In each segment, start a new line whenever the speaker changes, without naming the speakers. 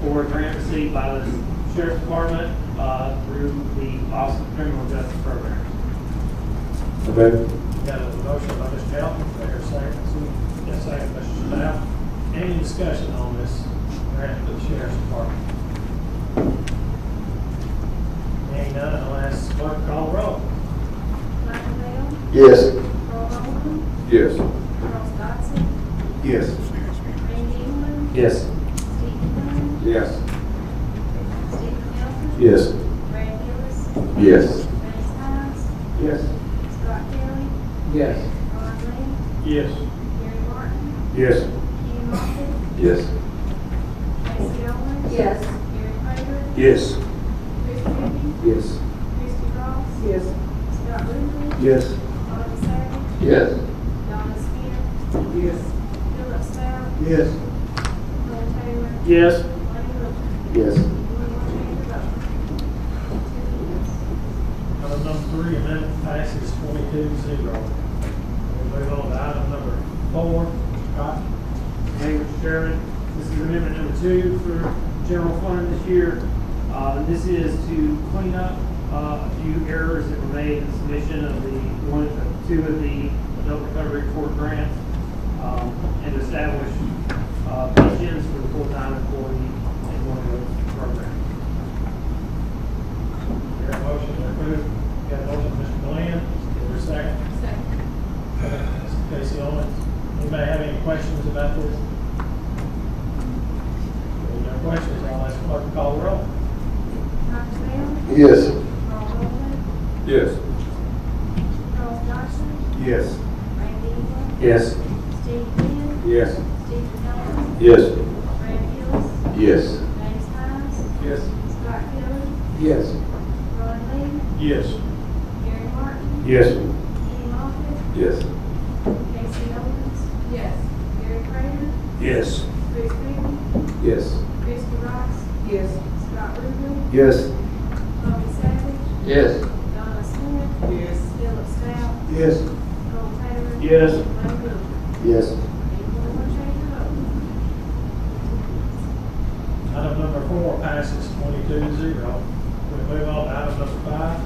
for a Uh, grant received by the sheriff's department uh, through the Office of Criminal Justice Program.
So moved.
Got a motion by Mr. Hamlin, do I hear a second? Yes, second, Mr. Stout. Any discussion on this grant to the sheriff's department? Any none, I'll ask clerk to call roll.
Michael Bell,
Yes.
Earl Bowman,
Yes.
Charles Dodson,
Yes.
Randy England,
Yes.
Stephen Dunn,
Yes.
Stephen Hilton.
Yes.
Brad Gillis,
Yes.
Ray Stiles,
Yes.
Scott Kelly,
Yes.
Ron Lee,
Yes.
Gary Martin,
Yes.
Kenny Moffitt,
Yes.
Tracy Owens.
Yes.
Gary Frager,
Yes.
Chris Reapy,
Yes.
Christie Ross,
Yes.
Scott Ruble,
Yes.
Donna Savage,
Yes.
Donna Spear,
Yes.
Philip Stout,
Yes.
Bill Taylor,
Yes.
Lonnie Wiltshire.
Yes.
Anyone want to vote?
Item number three, amendment passes twenty-two zero. We'll move on to item number four. Scott?
Thank you, Mr. Chairman. This is amendment number two for general fund this year. Uh, this is to clean up, uh, a few errors that were made in submission of the one, two of the adult recovery court grants, um, and to establish, uh, pensions for the full-time employee in one of those programs.
Your motion to approve. Got a motion, Mr. Glenn, is there a second?
Second.
Mr. Casey Owens. Anybody have any questions about this? If there are no questions, I'll ask clerk to call the roll.
Michael Bell,
Yes.
Carl Rowland,
Yes.
Charles Dodson,
Yes.
Randy England,
Yes.
Steve Quinn,
Yes.
Stephen Hilton,
Yes.
Brad Gillis,
Yes.
James Hines,
Yes.
Scott Kelly,
Yes.
Ron
Yes.
Lee, Gary Martin,
Yes.
Kenny Moffitt,
Yes.
Casey Owens,
Yes.
Gary Frager,
Yes.
Chris Reapy,
Yes.
Christie Ross,
Yes.
Scott Rubel,
Yes.
Tommy Savage,
Yes.
Donna Smith,
Yes.
Philip Stout,
Yes.
Cole Taylor.
Yes.
Lane Wiltshire.
Yes.
Anyone want to change their vote?
Item number four passes twenty-two to zero. We move on to item number five.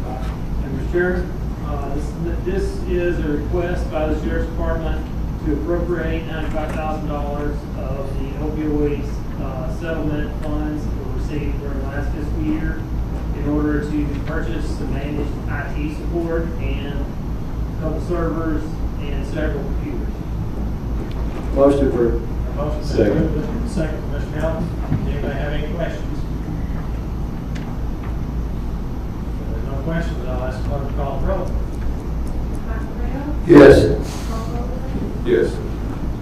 Scott?
And Mr. Chair, uh, this- this is a request by the Sheriff's Department to appropriate ninety-five thousand dollars of the opioids uh, settlement funds that were received during last fiscal year in order to purchase and manage IT support and a couple servers and several computers.
Motion approved.
A Motion to
Second.
approve. Second, Mr. Hamlin. Anybody have any questions? If there are no questions, I'll ask clerk to call the roll.
Michael Bell,
Yes.
Carl Rowland,
Yes.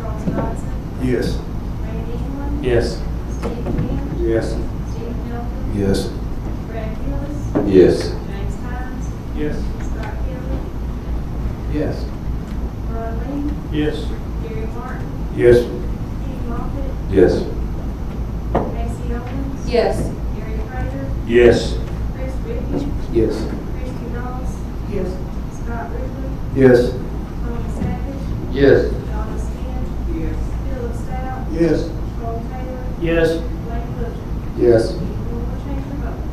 Charles Dodson,
Yes.
Randy England,
Yes.
Steve Quinn,
Yes.
Stephen Hilton,
Yes.
Brad Gillis,
Yes.
James Hines,
Yes.
Scott Kelly,
Yes.
Ron
Yes.
Lee, Gary Martin,
Yes.
Kenny Moffitt,
Yes.
Casey Owens,
Yes.
Gary Frager,
Yes.
Chris Reapy,
Yes.
Christie Ross,
Yes.
Scott Ruble,
Yes.
Tommy Savage,
Yes.
Donna Smith,
Yes.
Philip Stout,
Yes.
Cole Taylor,
Yes.
Lane Wiltshire.
Yes.
Anyone want to change their vote?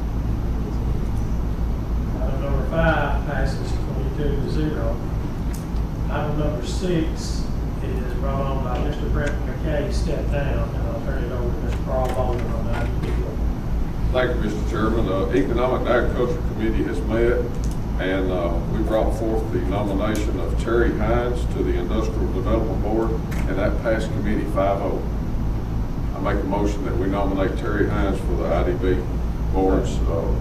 Item number five passes twenty-two to zero. Item number six is brought on by Mr. Brent McKay, step down, and I'll turn it over to Mr. Carl Baldwin on that.
Thank you, Mr. Chairman. Uh, Economic and Agriculture Committee has met, and uh, we brought forth the nomination of Terry Hines to the Industrial Development Board, and that passed committee 5-0. I make a motion that we nominate Terry Hines for the IDB boards. uh,
Uh,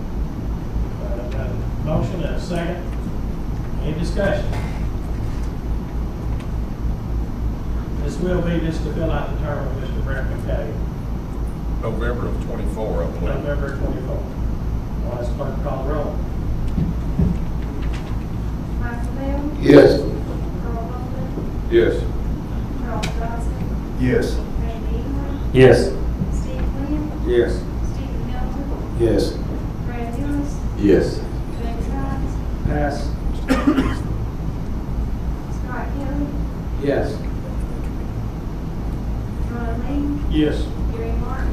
got a Motion and a second. Any discussion? This will be just to fill out the term of Mr. Brent McKay,
November of 24, I believe.
November twenty-fourth. I'll ask clerk to call the roll.
Michael Bell,
Yes.
Carl Bolden,
Yes.
Charles Dodson,
Yes.
Randy England,
Yes.
Steve Quinn,
Yes.
Stephen Hilton,
Yes.
Brad Gillis,
Yes.
James Hines,
Pass.
Scott Kelly,
Yes.
Ron
Yes.